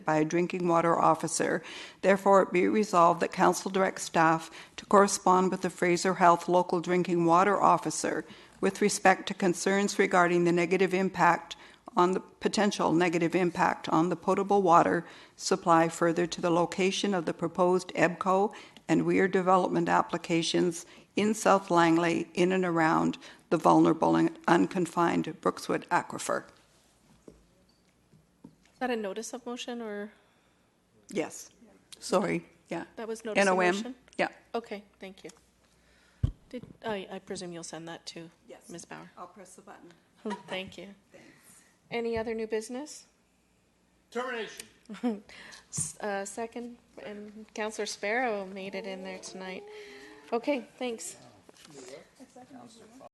by a drinking water officer. Therefore, it be resolved that council direct staff to correspond with the Fraser Health local drinking water officer with respect to concerns regarding the negative impact on the potential negative impact on the potable water supply further to the location of the proposed E EBCO and Weir development applications in South Langley in and around the vulnerable and unconfined Brookswood aquifer. Is that a notice of motion or Yes. Sorry. Yeah. that was notice of NOM. motion? Yeah. Okay, thank you. Did, oh, I, I presume you'll send that to Yes. Ms. Bauer? I'll press the button. Thank you. Any other new business? Termination. S- Uh, second, and Counselor Sparrow made it in there tonight. Okay, thanks.